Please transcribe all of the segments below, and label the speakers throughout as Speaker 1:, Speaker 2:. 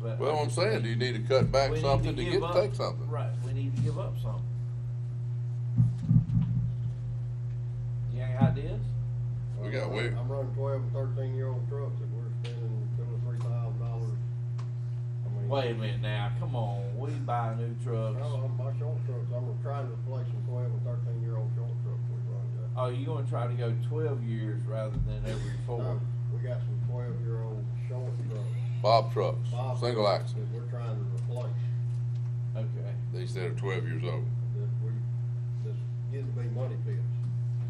Speaker 1: but.
Speaker 2: Well, I'm saying, do you need to cut back
Speaker 1: We need
Speaker 2: something to
Speaker 1: give
Speaker 2: get,
Speaker 1: up-
Speaker 2: take something?
Speaker 1: Right, we need to give up something. You got any ideas?
Speaker 2: We got way-
Speaker 3: I'm running twelve and thirteen year old trucks and we're spending two or three thousand dollars. I mean-
Speaker 1: Wait a minute now, come on, we buy new trucks.
Speaker 3: No, I'm, my short trucks, I'm trying to replace some twelve and thirteen year old short trucks we run, Jeff.
Speaker 1: Oh, you gonna try to go twelve years rather than every
Speaker 3: No,
Speaker 1: four?
Speaker 3: Uh, We got some twelve year old short trucks,
Speaker 2: Bob trucks,
Speaker 3: Bob.
Speaker 2: single axle.
Speaker 3: that we're trying to replace,
Speaker 1: Okay.
Speaker 2: They said are twelve years old.
Speaker 3: that we, that's getting to be money pits.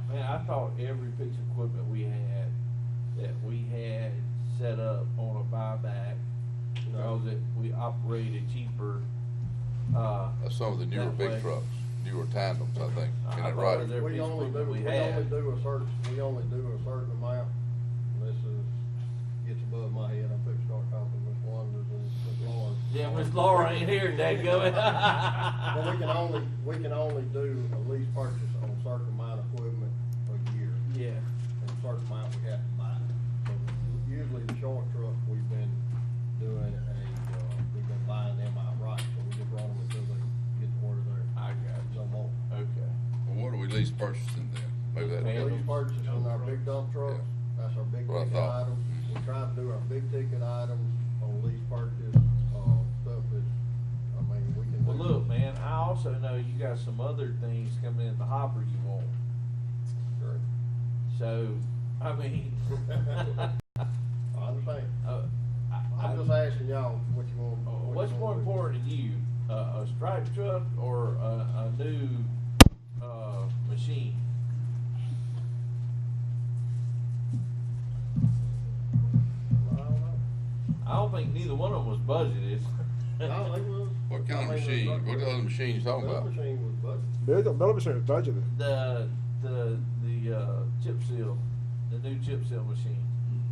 Speaker 1: Man, I thought every piece of equipment we had, that we had set up on a buyback,
Speaker 3: No.
Speaker 1: because it, we operated cheaper, uh.
Speaker 2: That's some of the newer
Speaker 1: that way.
Speaker 2: big trucks, newer tandems, I think.
Speaker 1: I-
Speaker 2: Isn't
Speaker 1: I
Speaker 2: that
Speaker 1: thought
Speaker 2: right?
Speaker 1: there- every
Speaker 3: We only
Speaker 1: equipment
Speaker 3: do,
Speaker 1: we
Speaker 3: we only
Speaker 1: had.
Speaker 3: do a certain, we only do a certain amount. This is, gets above my head, I'm fixing to start talking to Miss Wonders and Miss Lawrence.
Speaker 1: Yeah, Miss Laura ain't here, dadgummit.
Speaker 3: But we can only, we can only do a lease purchase on a certain amount of equipment a year,
Speaker 1: Yeah.
Speaker 3: and a certain amount we have to buy. So Usually the short truck, we've been doing a, uh, we've been buying them outright, so we just run them until they get to where they're,
Speaker 1: I got
Speaker 3: no more.
Speaker 1: you, okay.
Speaker 4: Well, what are we least purchasing then?
Speaker 2: Maybe
Speaker 1: Man.
Speaker 2: that,
Speaker 3: Lease purchase on our big dump trucks, that's our big
Speaker 2: What I
Speaker 3: ticket
Speaker 2: thought.
Speaker 3: item. We try to do our big ticket items on lease purchase, uh, stuff is, I mean, we can.
Speaker 1: Well,
Speaker 3: do-
Speaker 1: look, man, I also know you got some other things coming in the hopper you want.
Speaker 3: Sure.
Speaker 1: So, I mean.
Speaker 3: I understand.
Speaker 1: uh, I- I-
Speaker 3: I'm just asking y'all what you want.
Speaker 1: Uh,
Speaker 3: what you
Speaker 1: What's
Speaker 3: want
Speaker 1: more
Speaker 3: to do.
Speaker 1: important to you, a, a stripe truck or a, a new, uh, machine?
Speaker 3: I don't know.
Speaker 1: I don't think neither one of them was budgeted.
Speaker 3: No, they was.
Speaker 2: what kind of machine, what kind of machine you talking
Speaker 3: That
Speaker 2: about?
Speaker 3: machine was budgeted.
Speaker 5: Bill, Bill Machine is budgeted.
Speaker 1: The, the, the, uh, chip seal, the new chip seal machine.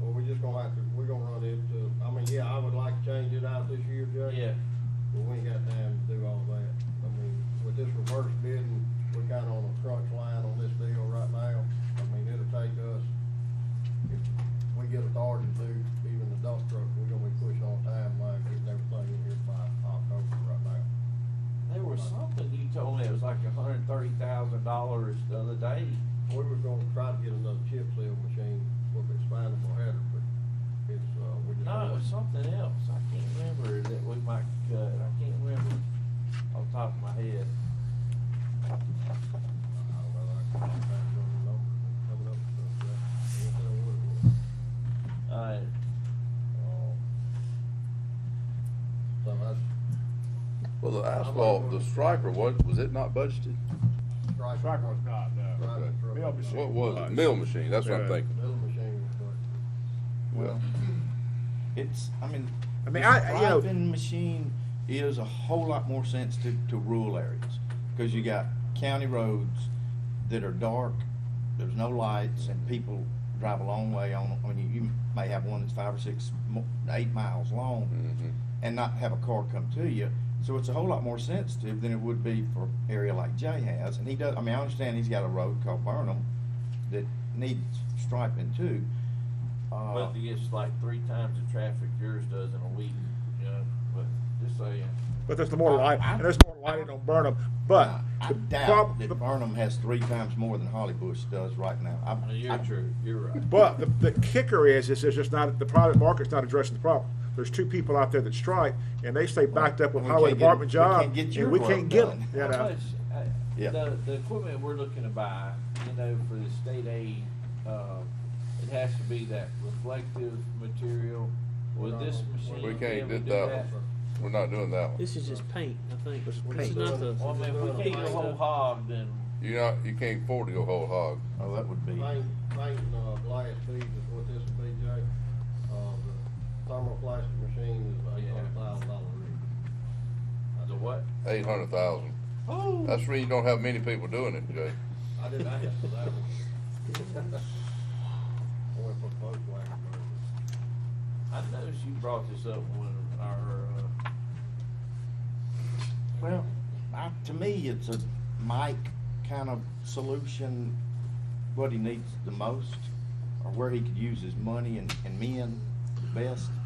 Speaker 3: Well, we just gonna have to, we're gonna run it to, I mean, yeah, I would like to change it out this year, Judge.
Speaker 1: Yeah,
Speaker 3: But we ain't got time to do all that. I mean, with this reverse bidding, we're kinda on a crunch line on this deal right now. I mean, it'll take us, if we get authority to do even the dump truck, we're gonna be pushing on timeline, getting everything in here by October right now.
Speaker 1: there was something you told me, it was like a hundred and thirty thousand dollars the other day.
Speaker 3: We were gonna try to get another chip seal machine with expandable header, but it's, uh, we just.
Speaker 1: No, it was something else, I can't remember that we might cut, I can't remember off the top of my head.
Speaker 3: I don't know, I can't find the numbers and coming up with stuff, but I can't tell what it was.
Speaker 1: Alright,
Speaker 3: Um, So that's,
Speaker 2: Well, the asphalt, the striper, what, was it not budgeted?
Speaker 3: Strike.
Speaker 5: Striker was not,
Speaker 3: Strike
Speaker 5: no.
Speaker 3: truck.
Speaker 5: Mill machine.
Speaker 2: What was it? Mill machine, that's what I'm
Speaker 4: Yeah.
Speaker 2: thinking.
Speaker 3: Mill machine was budgeted.
Speaker 6: Well, it's, I mean,
Speaker 5: Hmm. I
Speaker 6: I
Speaker 5: mean,
Speaker 6: mean,
Speaker 5: I- you know-
Speaker 6: machine is a whole lot more sensitive to rural areas because you got county roads that are dark, there's no lights, and people drive a long way on. I mean, you may have one that's five or six, mo- eight miles long,
Speaker 5: Hmm.
Speaker 2: Mhm.
Speaker 6: and not have a car come to you. So it's a whole lot more sensitive than it would be for an area like Jay has. And he does. I mean, I understand he's got a road called Burnham that needs striping too. Uh,
Speaker 1: But it gets like three times the traffic yours does in a week, you know, but just saying.
Speaker 5: But there's more light, and there's more lighting on Burnham, but
Speaker 6: Now, I
Speaker 5: the
Speaker 6: doubt
Speaker 5: prob-
Speaker 6: that
Speaker 5: the-
Speaker 6: Burnham has three times more than Holly Bush does right now. I,
Speaker 1: No, You're
Speaker 6: I-
Speaker 1: true, you're right.
Speaker 5: But the, the kicker is, is there's just not, the private market's not addressing the problem. There's two people out there that strike, and they stay backed up with
Speaker 6: We
Speaker 5: highway
Speaker 6: can't get-
Speaker 5: department
Speaker 6: we
Speaker 5: job,
Speaker 6: can't get your
Speaker 5: and we can't
Speaker 6: work
Speaker 5: get
Speaker 6: done.
Speaker 5: them, you
Speaker 1: How
Speaker 5: know?
Speaker 1: much, uh,
Speaker 6: Yeah.
Speaker 1: the, the equipment we're looking to buy, you know, for the state aid, uh, it has to be that reflective material. Would this machine
Speaker 2: We
Speaker 1: be
Speaker 2: can't
Speaker 1: able to
Speaker 2: do
Speaker 1: do
Speaker 2: that
Speaker 1: that?
Speaker 2: one. We're not doing that one.
Speaker 7: This is just paint, I think.
Speaker 5: This is
Speaker 7: This is
Speaker 5: paint.
Speaker 7: not the,
Speaker 1: Well, I mean, if we can't go whole hog, then,
Speaker 2: You're not, you can't afford to go whole hog.
Speaker 6: oh, that would be.
Speaker 3: Paint, painting, uh, glass beads is what this would be, Jay. Uh, the thermoplastic machine is eight hundred thousand dollars.
Speaker 1: the what?
Speaker 2: Eight hundred thousand.
Speaker 1: Oh.
Speaker 2: That's the reason you don't have many people doing it, Jay.
Speaker 3: I didn't ask for that one. I went for Volkswagen version.
Speaker 1: I noticed you brought this up when our, uh,
Speaker 6: Well, I, to me, it's a Mike kind of solution. What he needs the most, or where he could use his money and, and men the best.